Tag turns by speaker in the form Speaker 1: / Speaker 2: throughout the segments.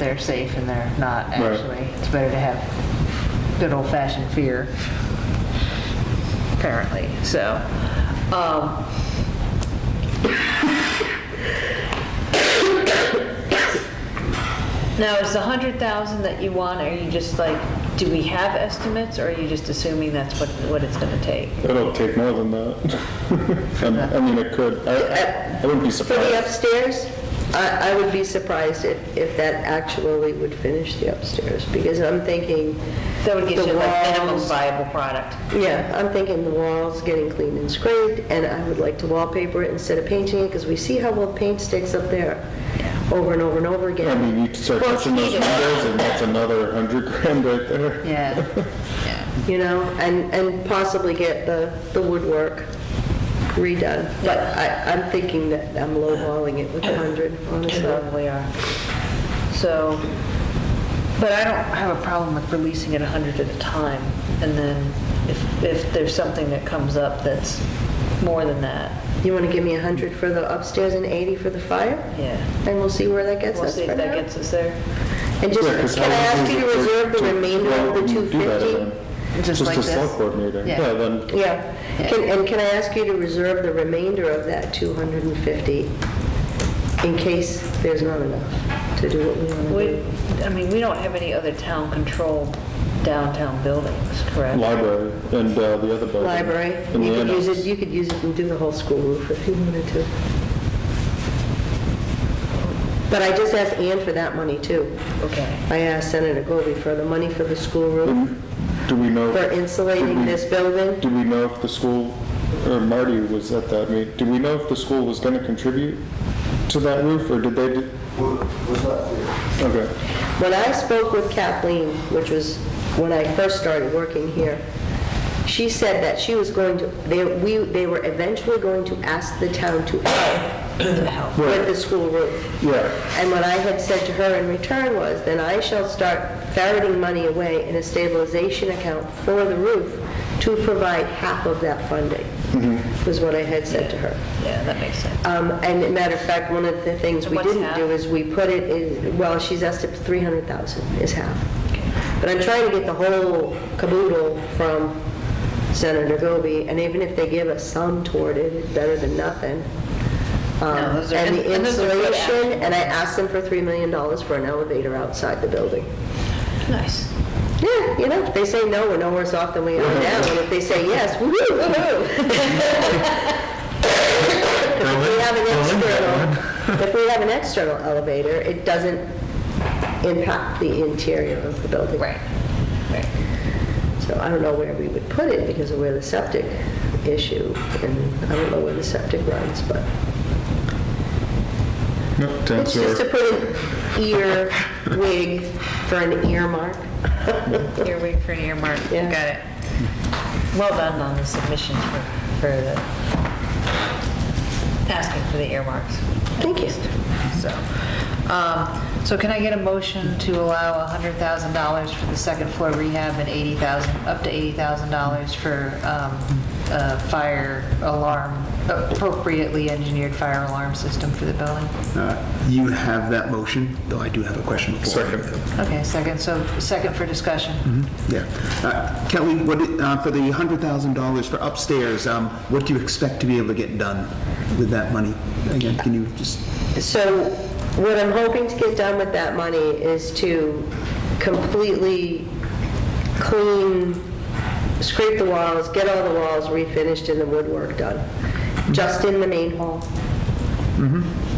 Speaker 1: they're safe and they're not,
Speaker 2: Right.
Speaker 1: actually. It's better to have good old-fashioned fear, apparently, so. um, Now, is the hundred thousand that you want, are you just like, do we have estimates, or are you just assuming that's what, what it's gonna take?
Speaker 2: It'll take more than that. I I mean, it could, I, I wouldn't be
Speaker 3: For the
Speaker 2: surprised.
Speaker 3: upstairs, I, I would be surprised if, if that actually would finish the upstairs, because I'm thinking.
Speaker 1: That would get
Speaker 3: the
Speaker 1: you like minimum
Speaker 3: walls-
Speaker 1: viable product.
Speaker 3: Yeah, I'm thinking the walls getting cleaned and scraped, and I would like to wallpaper it instead of painting it, because we see how well paint sticks up there over and over and over
Speaker 2: I
Speaker 3: again.
Speaker 2: mean, you start
Speaker 3: Well,
Speaker 2: touching those
Speaker 3: heated.
Speaker 2: windows and that's another hundred grand right there.
Speaker 1: Yeah, yeah.
Speaker 3: you know, and, and possibly get the, the woodwork redone. But I, I'm thinking that I'm lowballing it with a 100,
Speaker 1: They
Speaker 3: honestly.
Speaker 1: probably are. So, but I don't have a problem with releasing it 100 at a time, and then if, if there's something that comes up that's more than that,
Speaker 3: You want to give me a 100 for the upstairs and 80 for the fire?
Speaker 1: yeah.
Speaker 3: And we'll see where that gets
Speaker 1: We'll
Speaker 3: us
Speaker 1: see
Speaker 3: for
Speaker 1: if that
Speaker 3: now.
Speaker 1: gets us there.
Speaker 3: And
Speaker 2: Yeah, 'cause
Speaker 3: just,
Speaker 2: how
Speaker 3: can I
Speaker 2: easy
Speaker 3: ask
Speaker 2: is
Speaker 3: you to
Speaker 2: it
Speaker 3: reserve the
Speaker 2: to-
Speaker 3: remainder of the
Speaker 2: to do that
Speaker 3: 250?
Speaker 2: then?
Speaker 1: Just like
Speaker 2: a
Speaker 1: this?
Speaker 2: select board meeting,
Speaker 1: Yeah.
Speaker 2: yeah, then,
Speaker 3: Yeah. Can- And can I ask you to reserve the remainder of that 250 in case there's not enough to do what we want to
Speaker 1: We,
Speaker 3: do?
Speaker 1: I mean, we don't have any other town-controlled downtown buildings, correct?
Speaker 2: library and uh, the other building.
Speaker 3: Library,
Speaker 2: And
Speaker 3: you
Speaker 2: the
Speaker 3: could use
Speaker 2: annex.
Speaker 3: it, you could use it and do the whole school roof if you wanted to. But I just asked Ann for that money too.
Speaker 1: Okay.
Speaker 3: I asked Senator Goby for the money for the school roof,
Speaker 2: Do we know?
Speaker 3: for
Speaker 2: Mm-hmm.
Speaker 3: insulating this building.
Speaker 2: Do we know if the school, or Marty was at that meet, do we know if the school was going to contribute to that roof, or did they? do- Okay.
Speaker 3: When I spoke with Kathleen, which was when I first started working here, she said that she was going to, they, we, they were eventually going to ask the town to help with the school roof.
Speaker 2: Yeah,
Speaker 3: And what I had said to her in return was, then I shall start ferreting money away in a stabilization account for the roof to provide half of that funding, was what I had said to her.
Speaker 1: Yeah, that makes sense.
Speaker 3: Um, And a matter of fact, one of the things we
Speaker 1: What's
Speaker 3: didn't
Speaker 1: half?
Speaker 3: do is we put it in, well, she's estimated 300,000 is half. But I'm trying to get the whole caboodle from Senator Goby, and even if they give us some toward it, it's better than nothing. Um,
Speaker 1: No, those are-
Speaker 3: And the
Speaker 1: and those are good
Speaker 3: insulation, and I asked them for $3 million for an elevator outside the building.
Speaker 1: Nice.
Speaker 3: Yeah, you know, if they say no, we're no worse off than we are now, and if they say yes, woo-hoo, woo-hoo. If we have an external, if we have an external elevator, it doesn't impact the interior of the building.
Speaker 1: Right.
Speaker 3: So I don't know where we would put it because of where the septic issue, and I don't know where the septic runs, but
Speaker 2: no, to
Speaker 3: it's just to
Speaker 2: answer,
Speaker 3: put an ear wig for an earmark.
Speaker 1: You're waiting for an earmark.
Speaker 3: Yeah.
Speaker 1: Got it. Well done on the submissions for, for the, asking for the earmarks.
Speaker 3: Thank you.
Speaker 1: So, um, so can I get a motion to allow $100,000 for the second floor rehab and 80,000, up to $80,000 for um, a fire alarm, appropriately engineered fire alarm system for the building?
Speaker 4: Uh, You have that motion, though I do have a question for you.
Speaker 2: Second.
Speaker 1: Okay, second, so second for discussion.
Speaker 4: Yeah. Uh, Kelly, what, did- uh, for the $100,000 for upstairs, um, what do you expect to be able to get done with that money? Again, can you just,
Speaker 3: So what I'm hoping to get done with that money is to completely clean, scrape the walls, get all the walls refinished and the woodwork done, just in the main hall.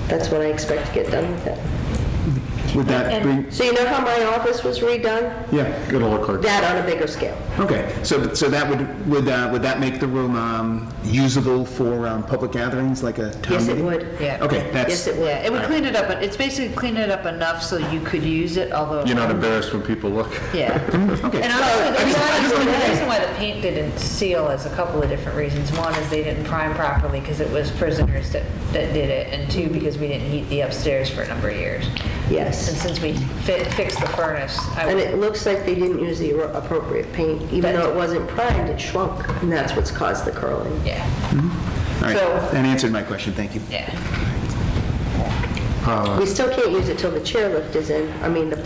Speaker 3: That's what I expect to get done with that.
Speaker 4: would that
Speaker 1: And-
Speaker 4: bring,
Speaker 3: So you know how my office was redone?
Speaker 4: yeah,
Speaker 2: it'll look like.
Speaker 3: That on a bigger scale.
Speaker 4: okay. So, so that would, would, uh, would that make the room um, usable for um, public gatherings, like a town
Speaker 3: Yes, it
Speaker 4: meeting?
Speaker 3: would.
Speaker 1: Yeah.
Speaker 4: Okay,
Speaker 3: Yes,
Speaker 4: that's,
Speaker 3: it
Speaker 1: Yeah,
Speaker 3: would.
Speaker 1: it would clean it up, but it's basically cleaning it up enough so you could use it, although.
Speaker 2: You're not embarrassed when people look.
Speaker 1: Yeah.
Speaker 4: okay.
Speaker 1: And honestly, the reason- the reason why the paint didn't seal is a couple of different reasons. One is they didn't prime properly because it was prisoners that, that did it, and two, because we didn't heat the upstairs for a number of years. And
Speaker 3: Yes.
Speaker 1: since we fi- fixed the furnace, I
Speaker 3: And
Speaker 1: would,
Speaker 3: it looks like they didn't use the appropriate paint, even though it wasn't primed, it shrunk, and that's what's caused the curling.
Speaker 1: yeah,
Speaker 4: All right,
Speaker 1: so-
Speaker 4: that answered my question, thank you.
Speaker 1: yeah.
Speaker 3: We still can't use it till the chairlift is in, I mean, the